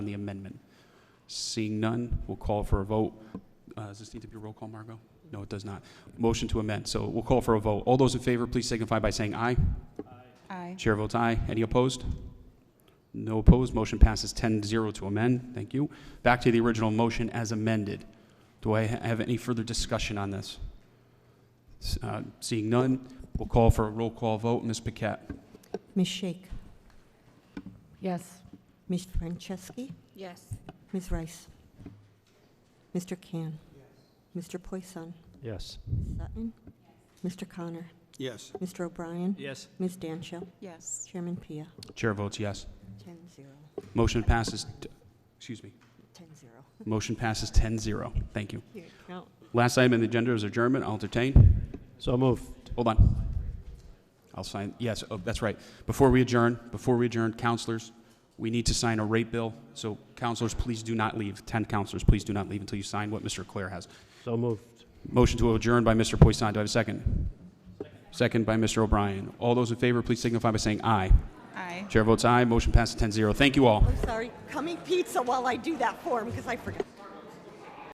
on the amendment? Seeing none, we'll call for a vote. Uh, Does this need to be a roll call, Margot? No, it does not. Motion to amend, so we'll call for a vote. All those in favor, please signify by saying aye. Aye. Chair votes aye. Any opposed? No opposed. Motion passes 10-0 to amend. Thank you. Back to the original motion as amended. Do I ha- have any further discussion on this? S- uh, Seeing none, we'll call for a roll call vote. Ms. Paquette? Ms. Shake, Yes. Ms. Franceschi, Yes. Ms. Rice, Mr. Can, Mr. Poisson, Yes. Ms. Sutton, Mr. Connor, Yes. Mr. O'Brien, Yes. Ms. Dancho, Yes. Chairman Pia, Chair votes yes. ten zero, Motion passes, t- excuse me, ten zero. motion passes 10-0. Thank you. Here, no, Last item on the agenda is adjournment. I'll entertain. So moved. Hold on. I'll sign, yes, oh, that's right. Before we adjourn, before we adjourn, counselors, we need to sign a rate bill. So counselors, please do not leave. 10 counselors, please do not leave until you sign what Mr. Claire has. So moved. Motion to adjourn by Mr. Poisson. Do I have a second? Second by Mr. O'Brien. All those in favor, please signify by saying aye. Aye. Chair votes aye. Motion passes 10-0. Thank you all. I'm sorry, coming pizza while I do that form, because I forgot.